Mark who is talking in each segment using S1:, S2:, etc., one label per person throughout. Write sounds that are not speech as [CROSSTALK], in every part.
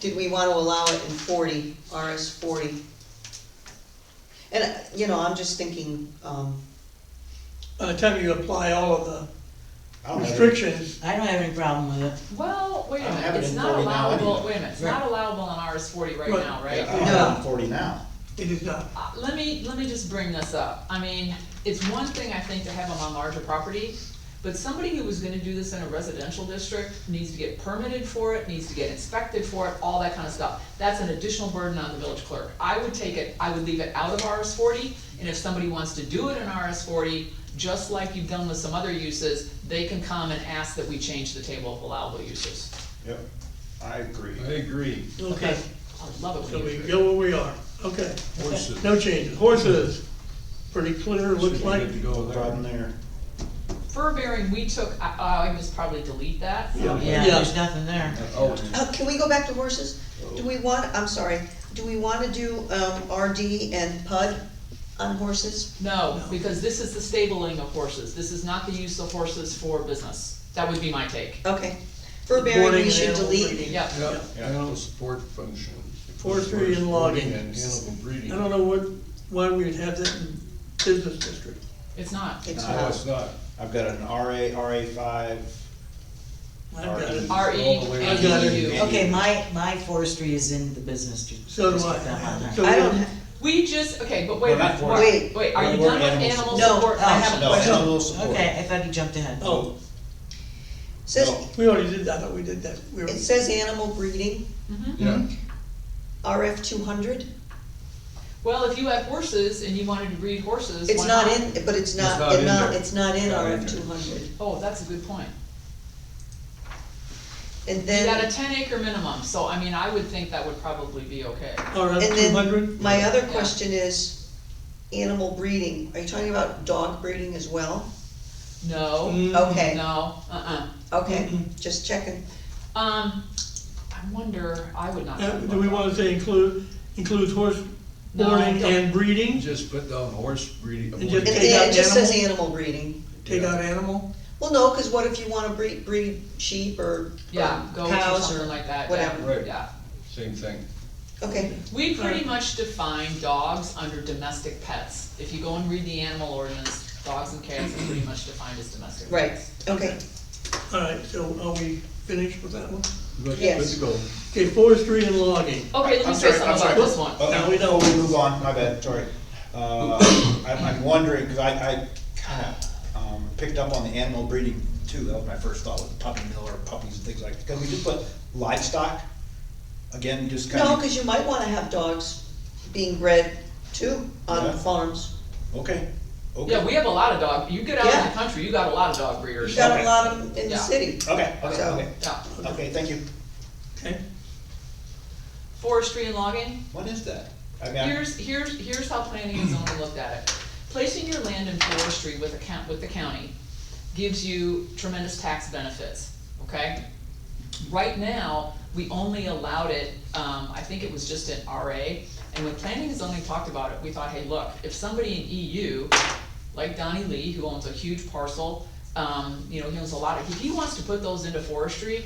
S1: did we wanna allow it in forty, RS forty? And, uh, you know, I'm just thinking, um,
S2: By the time you apply all of
S3: I
S2: the
S3: don't have it.
S2: restrictions,
S4: I don't have any problem with it.
S5: Well, wait a
S3: I have
S5: minute,
S3: it
S5: it's
S3: in
S5: not
S3: 40 now
S5: allowable,
S3: anyway.
S5: wait a minute, it's not
S4: Right.
S5: allowable in RS forty right
S2: Right.
S5: now,
S3: Yeah,
S5: right?
S3: I have it in forty now.
S2: it is not.
S5: Uh, Let me, let me just bring this up. I mean, it's one thing, I think, to have them on larger property, but somebody who was gonna do this in a residential district needs to get permitted for it, needs to get inspected for it, all that kind of stuff. That's an additional burden on the village clerk. I would take it, I would leave it out of RS forty, and if somebody wants to do it in RS forty, just like you've done with some other uses, they can come and ask that we change the table of allowable uses.
S3: Yep, I agree.
S6: I agree.
S2: Okay,
S5: I love it
S2: so
S5: when you
S2: we
S5: agree.
S2: go where we are, okay.
S6: Horses.
S2: No changes, horses, pretty clear, looks
S6: Should we
S2: like,
S6: need to go
S3: No
S6: there?
S3: Problem there.
S5: Fur bearing, we took, I, I would probably delete that.
S4: Yeah,
S2: Yeah.
S4: there's nothing there.
S6: Oh.
S1: uh, can we go back to horses? Do we want, I'm sorry, do we wanna do, um, RD and PUD on horses?
S5: No, because this is the stabling of horses, this is not the use of horses for business, that would be my take.
S1: Okay, fur bearing,
S2: Boarding
S1: we
S2: and
S1: should
S2: animal
S1: delete.
S2: breeding.
S5: Yep.
S6: Yeah, animal support function.
S2: Forestry and logging.
S6: And animal breeding.
S2: I don't know what, why we'd have that in business district.
S5: It's not.
S1: It's
S6: No,
S1: not,
S6: it's not.
S3: I've got an RA, RA five,
S2: I've got it.
S5: RE
S6: All the way
S5: and
S2: down.
S5: EU.
S4: Okay, my, my forestry is in the business district.
S2: So do I. So
S1: I don't, ha-
S5: We just, okay, but wait a
S3: We're not
S5: minute,
S3: for-
S5: wait, wait, are you
S3: We're
S5: done
S3: animal
S5: with animal
S1: support.
S5: support?
S1: No,
S5: I
S4: no,
S5: have a
S3: no,
S5: question.
S3: animal support.
S4: Okay, I thought you jumped ahead.
S2: Oh,
S1: says,
S3: No.
S2: we already did that, I thought we did that. We were-
S1: it says animal breeding,
S5: Mhm.
S6: Yeah,
S2: Mm-hmm.
S1: RF two hundred.
S5: Well, if you have horses and you wanted to breed horses,
S1: It's
S5: why
S1: not in, but it's not,
S6: not
S1: it
S6: in
S1: not,
S6: there.
S1: it's not in
S6: Not in
S1: RF two
S6: there.
S1: hundred.
S5: Oh, that's a good point.
S1: And
S5: You got a
S1: then,
S5: ten acre minimum, so I mean, I would think that would probably be okay.
S2: All right,
S1: and
S2: two hundred?
S1: then, my other
S5: Yeah.
S1: question is, animal breeding, are you talking about dog breeding as well?
S5: No,
S1: Okay.
S5: no, uh-uh.
S1: Okay,
S2: Mhm.
S1: just checking.
S5: Um, I wonder, I would not.
S2: Do we wanna say include, includes horse
S5: No, I
S2: boarding
S5: don't.
S2: and
S6: you
S2: breeding?
S6: just put down horse breeding.
S2: And just-
S1: And
S2: Take
S1: then
S2: out
S1: it just says animal breeding.
S2: Take out animal?
S1: Well, no, cause what if you wanna breed, breed sheep or
S5: Yeah,
S1: or
S5: goats or
S1: cows
S5: something
S1: or?
S5: like that,
S1: whatever.
S5: yeah,
S6: Right.
S5: yeah.
S6: Same thing.
S1: Okay,
S5: We pretty much define dogs under domestic pets. If you go and read the animal ordinance, dogs and cats are pretty much defined as domestic
S1: right,
S5: pets.
S1: okay,
S2: All right, so are we finished with that one?
S6: Good-
S1: Yes.
S6: Good to go.
S2: Okay, forestry and logging.
S5: Okay, let me
S3: I'm
S5: say
S3: sorry,
S5: something
S3: I'm
S5: about
S3: sorry.
S5: this one.
S3: Oh,
S2: No,
S3: no,
S2: we
S3: we
S2: don't.
S3: move on, my bad, sorry. Uh, I'm, I'm wondering, cause I, I kinda, um, picked up on the animal breeding too, that was my first thought with puppy mill or puppies and things like, that. can we just put livestock? Again, just kinda.
S1: no, cause you might wanna have dogs being bred too on
S3: Yeah.
S1: farms.
S3: Okay, okay.
S5: Yeah, we have a lot of dog, you get out in
S1: Yeah.
S5: the country, you got a lot of dog
S1: You
S5: breeders.
S1: got a
S3: Okay.
S1: lot of 'em in the
S5: Yeah.
S1: city.
S3: Okay, okay,
S1: So-
S3: okay,
S5: Yeah.
S3: okay, thank you.
S2: Okay,
S5: Forestry and logging,
S3: What is that? I mean, I-
S5: here's, here's, here's how planning and zoning looked at it. Placing your land in forestry with a coun- with the county gives you tremendous tax benefits, okay? Right now, we only allowed it, um, I think it was just an RA, and when planning and zoning talked about it, we thought, hey, look, if somebody in EU, like Donnie Lee, who owns a huge parcel, um, you know, he owns a lot of, if he wants to put those into forestry,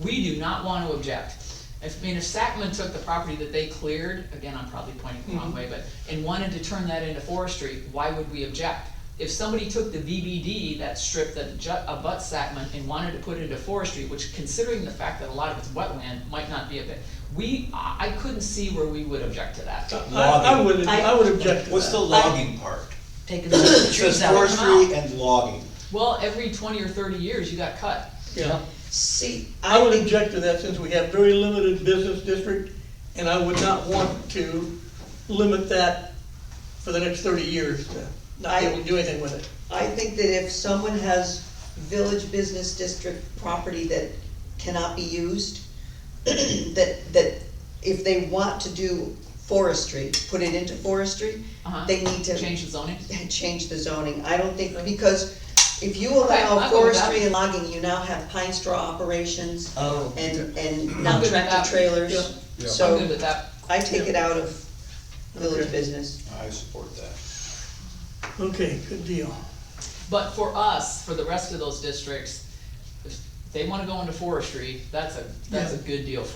S5: we do not wanna object. If, I mean, if Sackman took the property that they cleared, again, I'm probably pointing the
S1: Mm-hmm.
S5: wrong way, but, and wanted to turn that into forestry, why would we object? If somebody took the VBD, that strip that ju- abuts Sacman, and wanted to put it into forestry, which considering the fact that a lot of it's wetland, might not be a bit, we, I, I couldn't see where we would object to that.
S2: I, I would, I would object to
S3: what's the
S2: that.
S3: logging part?
S4: Taking the
S3: It
S4: trees
S3: says
S4: out.
S3: forestry and logging.
S5: Well, every twenty or thirty years, you got cut.
S2: Yeah,
S1: See,
S2: I
S1: I
S2: would
S1: think,
S2: object to that since we have very limited business district, and I would not want to limit that for the next thirty years, to not be able to do anything with it.
S1: I think that if someone has village business district property that cannot be used, [CLEARS THROAT] that, that if they want to do forestry, put it into forestry,
S5: Uh-huh.
S1: they need to
S5: Change the zoning.
S1: [LAUGHS] change the zoning. I don't think, because if you allow
S5: I'll go with that.
S1: forestry and logging, you now have pine straw operations
S4: Oh,
S1: and, and
S5: I'm
S1: now
S5: good with that.
S1: tractor
S2: Yeah.
S1: trailers.
S6: Yeah.
S5: I'm
S1: So
S5: good with that.
S1: I take it out of village
S2: Okay.
S1: business.
S3: I support that.
S2: Okay, good deal.
S5: But for us, for the rest of those districts, if they wanna go into forestry, that's a, that's a
S2: Yeah.
S5: good deal for